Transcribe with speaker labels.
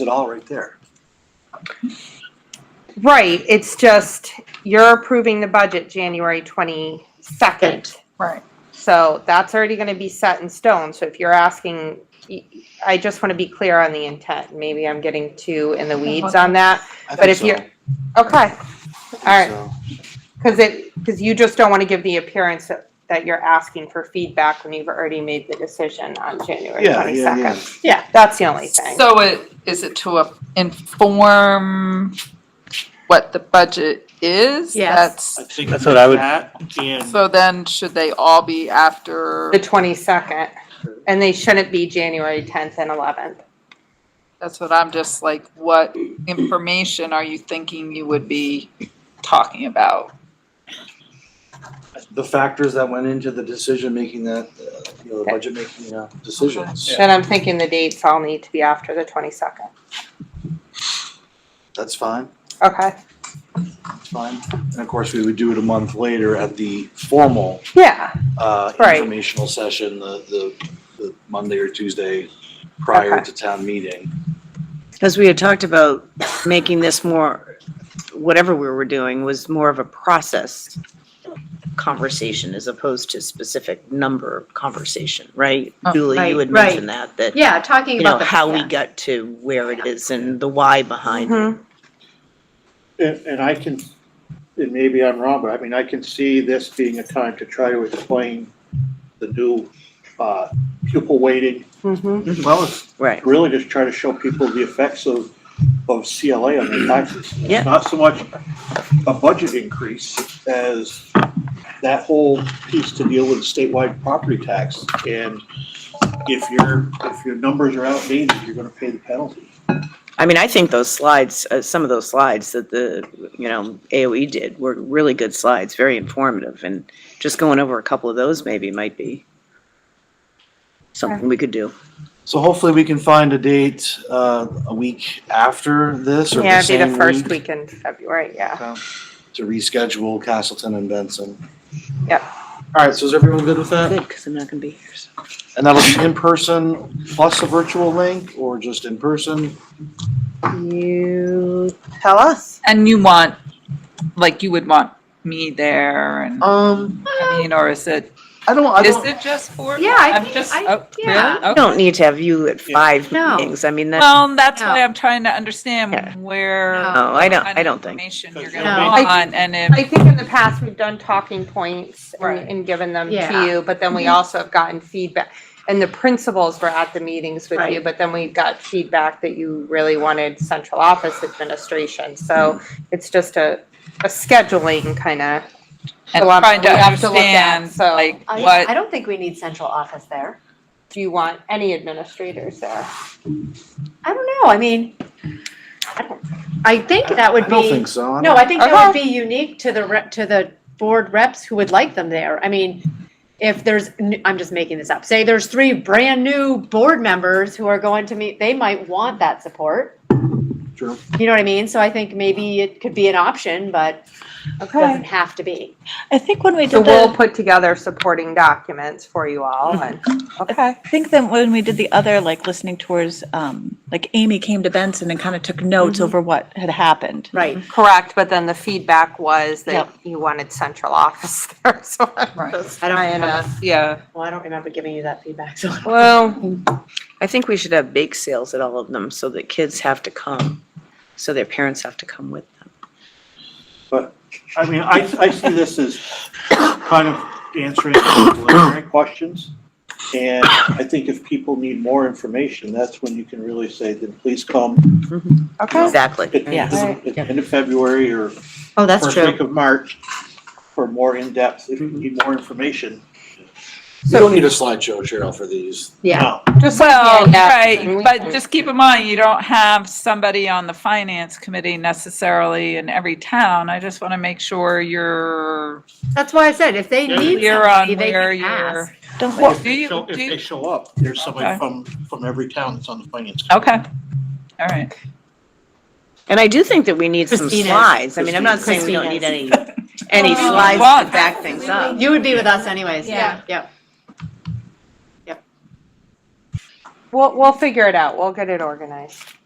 Speaker 1: it all right there.
Speaker 2: Right, it's just, you're approving the budget January 22nd.
Speaker 3: Right.
Speaker 2: So that's already going to be set in stone. So if you're asking, I just want to be clear on the intent. Maybe I'm getting too in the weeds on that.
Speaker 1: I
Speaker 2: But
Speaker 1: think
Speaker 2: if
Speaker 1: so.
Speaker 2: you're-
Speaker 1: I
Speaker 2: Okay,
Speaker 1: think
Speaker 2: all right.
Speaker 1: so.
Speaker 2: Because it, because you just don't want to give the appearance that that you're asking for feedback when you've already made the decision on January
Speaker 1: Yeah, yeah, yeah.
Speaker 2: 22nd. Yeah, that's the only thing.
Speaker 3: So it, is it to uh, inform what the budget is?
Speaker 4: Yes.
Speaker 3: That's-
Speaker 5: think
Speaker 6: That's what I would-
Speaker 5: That and
Speaker 3: So then should they all be after,
Speaker 2: The 22nd, and they shouldn't be January 10th and 11th.
Speaker 3: that's what I'm just like, what information are you thinking you would be talking about?
Speaker 1: The factors that went into the decision making that, uh, you know, the
Speaker 2: Okay.
Speaker 1: budget making uh, decisions,
Speaker 2: Then I'm thinking the dates all need to be after the 22nd.
Speaker 1: that's fine,
Speaker 2: Okay,
Speaker 1: that's fine. And of course, we would do it a month later at the formal
Speaker 2: yeah,
Speaker 1: uh,
Speaker 2: Right.
Speaker 1: informational session, the, the, the Monday or Tuesday prior
Speaker 2: Okay.
Speaker 1: to town meeting.
Speaker 4: Because we had talked about making this more, whatever we were doing was more of a process conversation as opposed to specific number conversation, right?
Speaker 3: Oh,
Speaker 4: Julie,
Speaker 7: right,
Speaker 4: you had
Speaker 7: right.
Speaker 4: mentioned that, that,
Speaker 7: Yeah, talking
Speaker 4: you
Speaker 7: about
Speaker 4: know,
Speaker 7: the,
Speaker 4: how we
Speaker 7: yeah. Mm-hmm.
Speaker 4: got to where it is and the why behind it.
Speaker 2: Mhm.
Speaker 5: And, and I can, and maybe I'm wrong, but I mean, I can see this being a time to try to explain the new, uh, pupil weighting.
Speaker 2: mhm,
Speaker 5: as Well, as
Speaker 4: Right,
Speaker 5: really just try to show people the effects of, of CLA on their taxes.
Speaker 4: Yeah.
Speaker 5: Not so much a budget increase as that whole piece to deal with statewide property tax. And if your, if your numbers are outdated, you're gonna pay the penalty.
Speaker 4: I mean, I think those slides, uh, some of those slides that the, you know, AOE did were really good slides, very informative, and just going over a couple of those maybe might be something we could do.
Speaker 1: So hopefully we can find a date, uh, a week after this or
Speaker 2: yeah,
Speaker 1: the
Speaker 2: it'd be the
Speaker 1: same
Speaker 2: first
Speaker 1: week
Speaker 2: week in February, yeah.
Speaker 1: to reschedule Castleton and Benson.
Speaker 2: Yep.
Speaker 1: All right, so is everyone good with that?
Speaker 4: Good, because I'm not going to be here, so.
Speaker 1: And that'll be in person plus a virtual link or just in person?
Speaker 2: You tell us.
Speaker 3: And you want, like, you would want me there and,
Speaker 1: Um,
Speaker 3: I mean, or is it,
Speaker 1: I don't, I
Speaker 3: is
Speaker 1: don't,
Speaker 3: it just for?
Speaker 7: Yeah, I
Speaker 3: I'm
Speaker 7: think-
Speaker 3: just-
Speaker 7: I-
Speaker 3: oh, really?
Speaker 7: yeah.
Speaker 3: Okay.
Speaker 4: We don't need to have you at five
Speaker 7: No.
Speaker 4: meetings, I mean, that's,
Speaker 3: Well, that's why
Speaker 7: No.
Speaker 3: I'm trying to
Speaker 4: Yeah.
Speaker 3: understand where.
Speaker 7: No.
Speaker 4: no, I don't,
Speaker 3: kind
Speaker 4: I
Speaker 3: of
Speaker 4: don't think.
Speaker 3: Information you're
Speaker 5: No.
Speaker 3: gonna
Speaker 2: I-
Speaker 3: want, and if.
Speaker 2: I think in the past, we've done talking points
Speaker 3: Right.
Speaker 2: and, and given them
Speaker 7: Yeah.
Speaker 2: to you, but then we also have gotten feedback. And the principals were at the meetings with you,
Speaker 7: Right.
Speaker 2: but then we got feedback that you really wanted central office administration. So it's just a, a scheduling kind of.
Speaker 3: and
Speaker 2: Well, I'm-
Speaker 3: trying to
Speaker 2: we have to look at,
Speaker 3: understand
Speaker 2: so
Speaker 3: like
Speaker 7: I,
Speaker 3: what
Speaker 7: I don't think we need central office there.
Speaker 2: Do you want any administrators there?
Speaker 7: I don't know. I mean, I, don't, I think that would
Speaker 1: I don't
Speaker 7: be
Speaker 1: think so. I
Speaker 7: no.
Speaker 1: don't-
Speaker 7: I think
Speaker 2: Uh-huh.
Speaker 7: that would be unique to the rep, to the board reps who would like them there. I mean, if there's, n- I'm just making this up. Say there's three brand new board members who are going to meet. They might want that support.
Speaker 1: True.
Speaker 7: You know what I mean? So I think maybe it could be an option, but it doesn't have to be.
Speaker 8: I think when we
Speaker 2: So
Speaker 8: did
Speaker 2: we'll
Speaker 8: the,
Speaker 2: put together supporting documents for you all and, okay.
Speaker 8: I think that when we did the other, like, listening tours, um, like Amy came to Benson and kind of took notes over what had happened.
Speaker 7: Right.
Speaker 2: Correct, but then the feedback was
Speaker 7: Yep.
Speaker 2: that you wanted central office there, so I'm
Speaker 3: Right.
Speaker 2: just
Speaker 7: I don't
Speaker 2: trying
Speaker 7: remember.
Speaker 2: to, yeah.
Speaker 7: Well, I don't remember giving you that feedback. So
Speaker 2: Well,
Speaker 4: I think we should have bake sales at all of them, so that kids have to come, so their parents have to come with them.
Speaker 5: But, I mean, I, I see this as kind of answering preliminary questions. And I think if people need more information, that's when you can really say, then please come
Speaker 2: okay,
Speaker 4: Exactly.
Speaker 5: at the
Speaker 8: Yes.
Speaker 5: end of- at the end of February or
Speaker 7: oh,
Speaker 5: first week of March for more in-depth, if you need more information.
Speaker 1: You don't need a slideshow, Cheryl, for these.
Speaker 7: Yeah.
Speaker 5: No.
Speaker 2: just like
Speaker 3: well
Speaker 2: the handouts and
Speaker 3: right
Speaker 2: we
Speaker 3: but
Speaker 2: can-
Speaker 3: just keep in mind you don't have somebody on the finance committee necessarily in every town i just want to make sure you're
Speaker 7: That's why I said if they
Speaker 5: Yeah.
Speaker 7: need
Speaker 3: clear on
Speaker 7: somebody, they
Speaker 3: where
Speaker 7: can
Speaker 3: you're
Speaker 7: ask.
Speaker 8: Don't we?
Speaker 3: Well,
Speaker 5: If
Speaker 3: do
Speaker 5: they
Speaker 3: you-
Speaker 5: show- if
Speaker 3: do you-
Speaker 5: they show up, there's
Speaker 3: Okay.
Speaker 5: somebody from, from every town that's on the finance. committee.
Speaker 3: okay all right
Speaker 4: And I do think that we need some
Speaker 7: Christina's.
Speaker 4: slides, I mean, I'm not saying we don't need any, any
Speaker 3: Oh, Well,
Speaker 4: slides
Speaker 3: what?
Speaker 4: to back things up.
Speaker 7: You would be with us anyways.
Speaker 8: Yeah.
Speaker 7: Yeah.
Speaker 2: We'll, we'll figure it out, we'll get it organized.